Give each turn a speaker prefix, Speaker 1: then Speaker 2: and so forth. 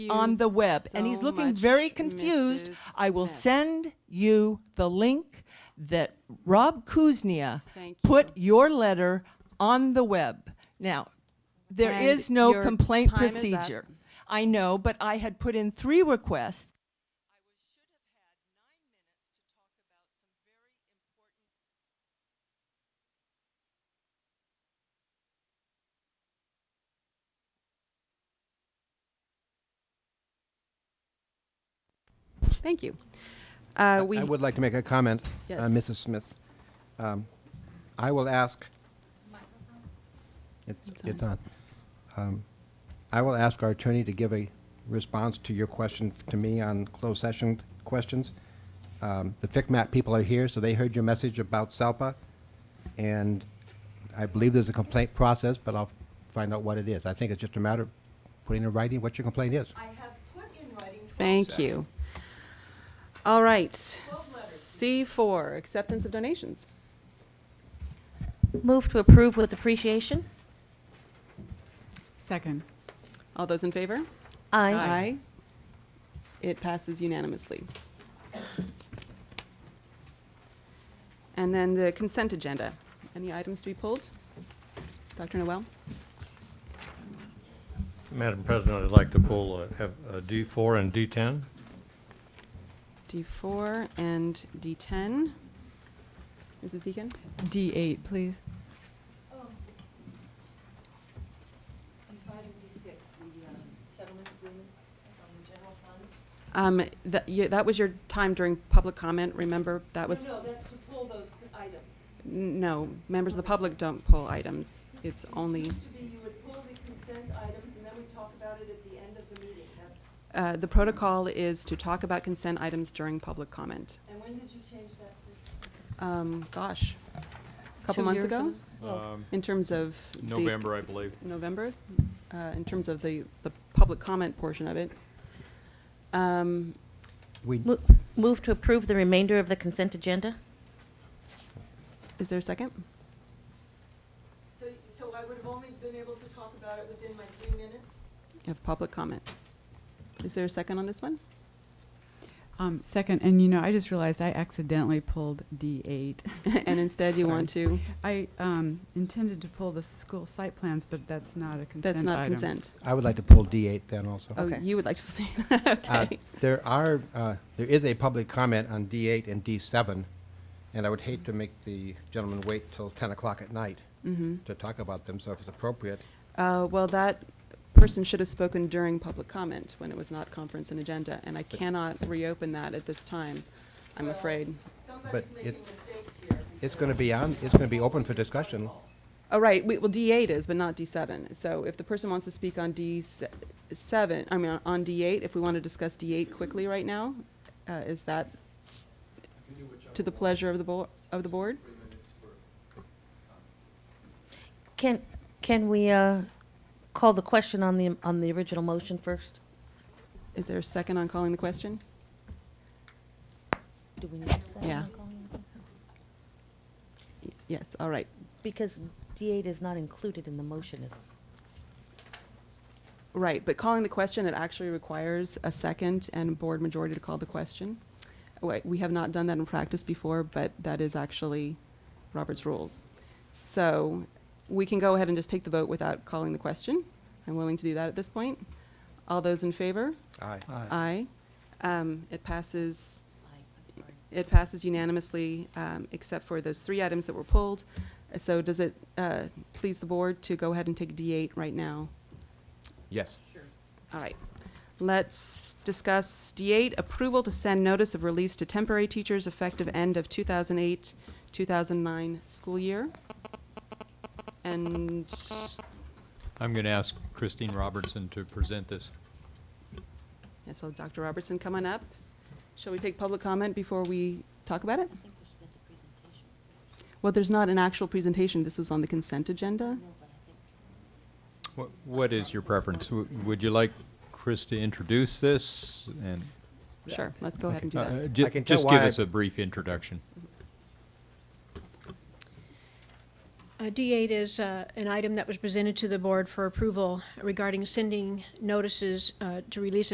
Speaker 1: on the web. and he's
Speaker 2: so
Speaker 1: looking
Speaker 2: much,
Speaker 1: very confused.
Speaker 2: Mrs.
Speaker 1: I will
Speaker 2: Smith.
Speaker 1: send you the link that Rob Kuznia
Speaker 2: Thank
Speaker 1: put your letter on the web. Now, there
Speaker 2: And
Speaker 1: is no
Speaker 2: your
Speaker 1: complaint
Speaker 2: time is up.
Speaker 1: procedure. I know, but I had put in three requests.
Speaker 2: Thank you. Uh, we,
Speaker 3: I would like to make a comment, uh,
Speaker 2: Yes.
Speaker 3: Mrs. Smith. Um, I will ask. It's it's on. Um, I will ask our attorney to give a response to your question f- to me on closed session questions. Um, The FICMAT people are here, so they heard your message about SALPA, and I believe there's a complaint process, but I'll find out what it is. I think it's just a matter of putting in writing what your complaint is.
Speaker 1: I have put in writing.
Speaker 2: thank you. All right. C4, acceptance of donations.
Speaker 4: Move to approve with appreciation.
Speaker 5: Second.
Speaker 2: All those in favor?
Speaker 4: Aye.
Speaker 2: It passes unanimously. And then the consent agenda. Any items to be pulled? Dr. Noel?
Speaker 6: Madam President, I'd like to pull uh, have, uh, D4 and D10.
Speaker 2: D4 and D10. Mrs. Deacon?
Speaker 5: D8, please.
Speaker 2: Um, that, yeah, that was your time during public comment, remember? That was.
Speaker 1: that's to pull those items.
Speaker 2: N- No, members of the public don't pull items. It's only,
Speaker 1: to be you would pull the consent items and then we talk about it at the end of the meeting.
Speaker 2: uh, the protocol is to talk about consent items during public comment.
Speaker 1: And when did you change that?
Speaker 2: Um, gosh, a couple
Speaker 5: Two
Speaker 2: months
Speaker 5: years
Speaker 2: ago?
Speaker 5: ago?
Speaker 7: Um,
Speaker 2: In terms of. the-
Speaker 7: November, I believe.
Speaker 2: November, uh, in terms of the, the public comment portion of it. Um,
Speaker 3: We,
Speaker 4: Mo- Move to approve the remainder of the consent agenda.
Speaker 2: is there a second?
Speaker 1: So, so I would have only been able to talk about it within my three minutes?
Speaker 2: You have public comment. Is there a second on this one?
Speaker 5: Um, second, and you know, I just realized I accidentally pulled D8.
Speaker 2: And instead you want to,
Speaker 5: I um, intended to pull the school site plans, but that's not a consent
Speaker 2: that's not
Speaker 5: item.
Speaker 2: consent.
Speaker 3: I would like to pull D8 then also.
Speaker 2: Oh,
Speaker 4: Okay.
Speaker 2: you would like to say,
Speaker 3: Uh,
Speaker 2: okay.
Speaker 3: There are, uh, there is a public comment on D8 and D7, and I would hate to make the gentleman wait till 10 o'clock at night
Speaker 2: Mm-hmm.
Speaker 3: to talk about them, so if it's appropriate,
Speaker 2: Uh, Well, that person should have spoken during public comment when it was not conference and agenda, and I cannot reopen that at this time, I'm afraid.
Speaker 3: but it's, it's going to be on, it's going to be open for discussion.
Speaker 2: Oh, right, we- well, D8 is, but not D7. So if the person wants to speak on D7, I mean, on D8, if we want to discuss D8 quickly right now, uh, is that to the pleasure of the bo, of the board?
Speaker 4: Can, can we uh, call the question on the, on the original motion first?
Speaker 2: Is there a second on calling the question?
Speaker 4: Do we need a second?
Speaker 2: Yeah. Y- Yes, all right,
Speaker 4: Because D8 is not included in the motion, is,
Speaker 2: right, but calling the question, it actually requires a second and board majority to call the question. Wait, We have not done that in practice before, but that is actually Robert's rules. So we can go ahead and just take the vote without calling the question. I'm willing to do that at this point. All those in favor?
Speaker 3: Aye.
Speaker 2: Aye. Um, It passes, it passes unanimously, um, except for those three items that were pulled. So does it uh, please the board to go ahead and take D8 right now?
Speaker 3: Yes.
Speaker 2: All right. Let's discuss D8, approval to send notice of release to temporary teachers effective end of 2008, 2009 school year. And
Speaker 7: I'm going to ask Christine Robertson to present this.
Speaker 2: Yes, well, Dr. Robertson, come on up. Shall we take public comment before we talk about it? Well, there's not an actual presentation. This was on the consent agenda.
Speaker 7: What, what is your preference? W- Would you like Chris to introduce this and?
Speaker 2: Sure, let's go ahead and do
Speaker 7: Uh,
Speaker 2: that.
Speaker 7: uh, ju-
Speaker 3: I can tell
Speaker 7: Just give
Speaker 3: why I-
Speaker 7: us a brief introduction.
Speaker 8: Uh, D8 is uh, an item that was presented to the board for approval regarding sending notices uh, to release